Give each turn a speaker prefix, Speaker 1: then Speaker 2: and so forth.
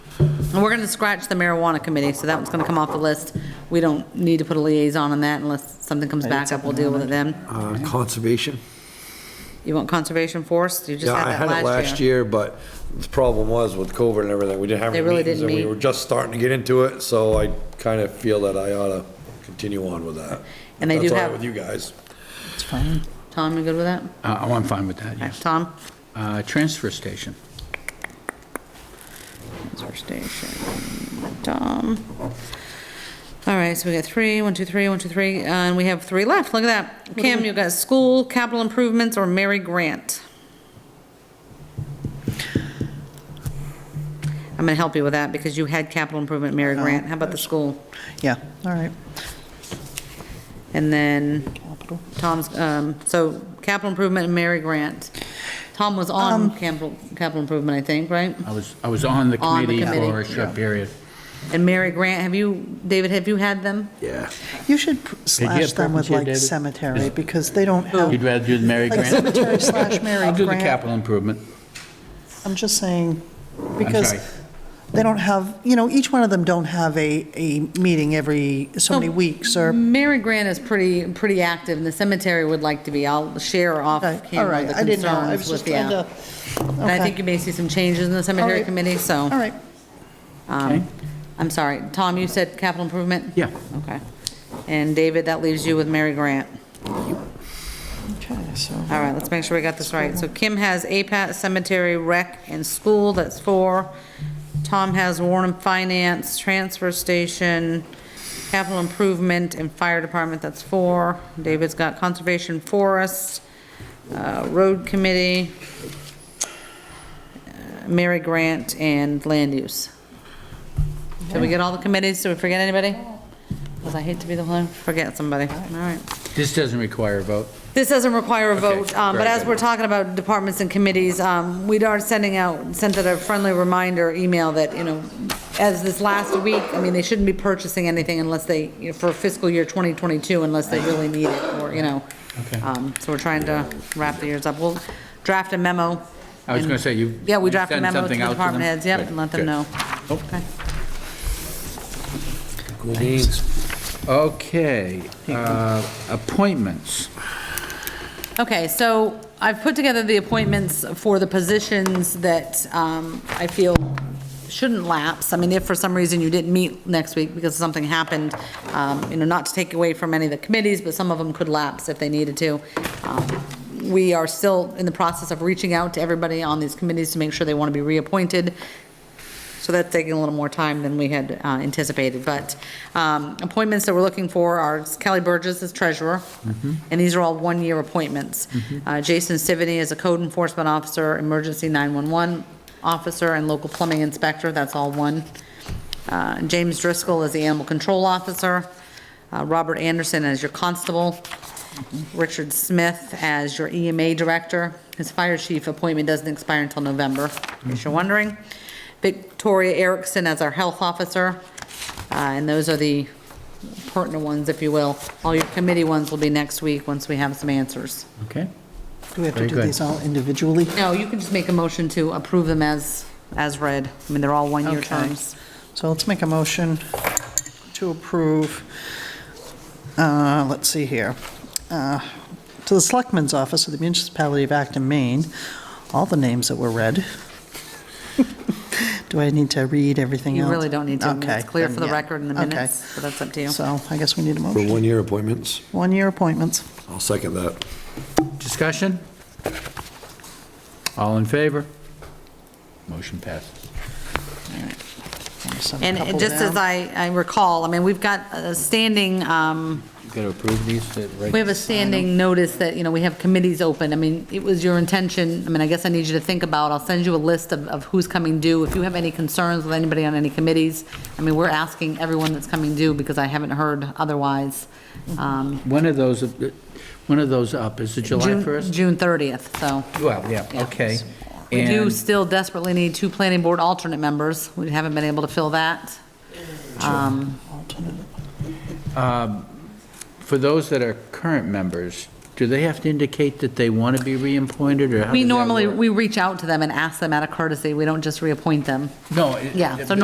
Speaker 1: And we're going to scratch the marijuana committee, so that one's going to come off the list. We don't need to put a liaison on that unless something comes back up, we'll deal with it then.
Speaker 2: Uh, Conservation.
Speaker 1: You want conservation forest? You just
Speaker 2: Yeah,
Speaker 1: had
Speaker 2: I
Speaker 1: that last year.
Speaker 2: had it last year, but the problem was with COVID and everything, we didn't have
Speaker 1: They
Speaker 2: any
Speaker 1: really
Speaker 2: meetings.
Speaker 1: didn't
Speaker 2: And we
Speaker 1: meet.
Speaker 2: were just starting to get into it, so I kind of feel that I ought to continue on with that.
Speaker 1: And they do
Speaker 2: That's all right
Speaker 1: have-
Speaker 2: with you guys.
Speaker 3: It's fine.
Speaker 1: Tom, you good with that?
Speaker 3: Uh, Oh, I'm fine with that,
Speaker 1: Okay,
Speaker 3: yes.
Speaker 1: Tom?
Speaker 3: Uh, Transfer station.
Speaker 1: That's our station. Tom. All right, so we got three, one, two, three, one, two, three, uh, and we have three left. Look at that. Kim, you got school, capital improvements, or Mary Grant? I'm gonna help you with that because you had capital improvement, Mary Grant. How about the school?
Speaker 4: Yeah, all right,
Speaker 1: And then
Speaker 4: capital.
Speaker 1: Tom's, um, so capital improvement and Mary Grant. Tom was
Speaker 4: Um,
Speaker 1: on capital, capital improvement, I think, right?
Speaker 3: I was, I was on the
Speaker 1: On the
Speaker 3: committee for a
Speaker 1: committee,
Speaker 3: short period.
Speaker 1: And Mary Grant, have you, David, have you had them?
Speaker 2: Yeah.
Speaker 4: You should pr- slash them
Speaker 3: preference
Speaker 4: with
Speaker 3: here,
Speaker 4: like
Speaker 3: David?
Speaker 4: cemetery, because they don't
Speaker 1: Oh.
Speaker 4: have.
Speaker 3: You'd rather do the Mary
Speaker 4: Like
Speaker 3: Grant?
Speaker 4: cemetery slash Mary
Speaker 3: I'll do the
Speaker 4: Grant.
Speaker 3: capital improvement.
Speaker 4: I'm just saying,
Speaker 3: I'm
Speaker 4: because
Speaker 3: sorry.
Speaker 4: they don't have, you know, each one of them don't have a, a meeting every so many
Speaker 1: No.
Speaker 4: weeks, or,
Speaker 1: Mary Grant is pretty, pretty active, and the cemetery would like to be. I'll share off
Speaker 4: Okay, all
Speaker 1: camera
Speaker 4: right,
Speaker 1: the
Speaker 4: I didn't know, I
Speaker 1: concerns with
Speaker 4: was just
Speaker 1: the,
Speaker 4: trying to,
Speaker 1: and I think you
Speaker 4: okay,
Speaker 1: may see some changes in the cemetery
Speaker 4: right.
Speaker 1: committee,
Speaker 4: all
Speaker 1: so. um,
Speaker 4: right.
Speaker 3: Okay.
Speaker 1: I'm sorry, Tom, you said capital improvement?
Speaker 3: Yeah.
Speaker 1: Okay. And David, that leaves you with Mary Grant.
Speaker 4: Okay, so,
Speaker 1: All right, let's make sure we got this right. So Kim has APAT, cemetery, rec, and school, that's four. Tom has Warren Finance, transfer station, capital improvement, and fire department, that's four. David's got conservation, forest, uh, road committee, uh, Mary Grant, and land use. Did we get all the committees? Did we forget anybody? Because I hate to be the one, forget somebody. All right.
Speaker 3: This doesn't require a vote.
Speaker 1: This doesn't require a
Speaker 3: Okay,
Speaker 1: vote, um, but
Speaker 3: very
Speaker 1: as
Speaker 3: good.
Speaker 1: we're talking about departments and committees, um, we are sending out, sent out a friendly reminder email that, you know, as this last week, I mean, they shouldn't be purchasing anything unless they, you know, for fiscal year 2022, unless they really need it, or, you know.
Speaker 3: Okay.
Speaker 1: Um, So we're trying to wrap the years up. We'll draft a memo.
Speaker 3: I was
Speaker 1: and-
Speaker 3: gonna say, you-
Speaker 1: Yeah, we
Speaker 3: you
Speaker 1: draft a
Speaker 3: send
Speaker 1: memo to the
Speaker 3: something out to
Speaker 1: department
Speaker 3: them?
Speaker 1: heads, yep,
Speaker 3: Good,
Speaker 1: and let them
Speaker 3: good. Oh.
Speaker 1: know. Okay.
Speaker 2: Cool beans.
Speaker 3: Okay, uh, appointments.
Speaker 1: Okay, so I've put together the appointments for the positions that um, I feel shouldn't lapse. I mean, if for some reason you didn't meet next week because something happened, um, you know, not to take away from any of the committees, but some of them could lapse if they needed to. Um, We are still in the process of reaching out to everybody on these committees to make sure they want to be reappointed. So that's taking a little more time than we had uh, anticipated, but um, appointments that we're looking for are Kelly Burgess as treasurer, and these are all one-year appointments. Uh, Jason Stivity is a code enforcement officer, emergency 911 officer, and local plumbing inspector, that's all one. Uh, James Driscoll is the animal control officer, uh, Robert Anderson as your constable, Richard Smith as your EMA director. His fire chief appointment doesn't expire until November, in case you're wondering. Victoria Erickson as our health officer. Uh, And those are the pertinent ones, if you will. All your committee ones will be next week, once we have some answers.
Speaker 3: Okay,
Speaker 4: do we have
Speaker 3: Very
Speaker 4: to do
Speaker 3: good.
Speaker 4: these all individually?
Speaker 1: No, you can just make a motion to approve them as, as read. I mean, they're all one-year
Speaker 4: Okay.
Speaker 1: terms.
Speaker 4: So let's make a motion to approve, uh, let's see here, uh, to the Selectmen's Office of the Municipality of Acton, Maine, all the names that were read. Do I need to read everything else?
Speaker 1: You really don't need to. I mean,
Speaker 4: Okay,
Speaker 1: It's clear
Speaker 4: then,
Speaker 1: for the
Speaker 4: yeah.
Speaker 1: record in the
Speaker 4: Okay.
Speaker 1: minutes, but that's up to you.
Speaker 4: So I guess we need a
Speaker 2: For
Speaker 4: motion.
Speaker 2: one-year appointments,
Speaker 4: One-year appointments.
Speaker 2: I'll second that.
Speaker 3: discussion? All in favor? Motion passes.
Speaker 4: Just a
Speaker 1: And
Speaker 4: couple
Speaker 1: it- just as
Speaker 4: down.
Speaker 1: I, I recall, I mean, we've got a standing, um,
Speaker 3: You gotta approve these, that, right?
Speaker 1: we have a standing notice that, you know, we have committees open. I mean, it was your intention, I mean, I guess I need you to think about, I'll send you a list of, of who's coming due. If you have any concerns with anybody on any committees, I mean, we're asking everyone that's coming due because I haven't heard otherwise. Um,
Speaker 3: One of those, uh, one of those up, is it July
Speaker 1: June-
Speaker 3: 1st?
Speaker 1: June 30th, so.
Speaker 3: Well, yeah, okay.
Speaker 1: We do
Speaker 3: And-
Speaker 1: still desperately need two planning board alternate members. We haven't been able to fill that. Um,
Speaker 3: For those that are current members, do they have to indicate that they want to be reappointed, or how does
Speaker 1: We
Speaker 3: that
Speaker 1: normally,
Speaker 3: work?
Speaker 1: we reach out to them and ask them out of courtesy. We don't just reappoint them.
Speaker 3: No.
Speaker 1: Yeah, so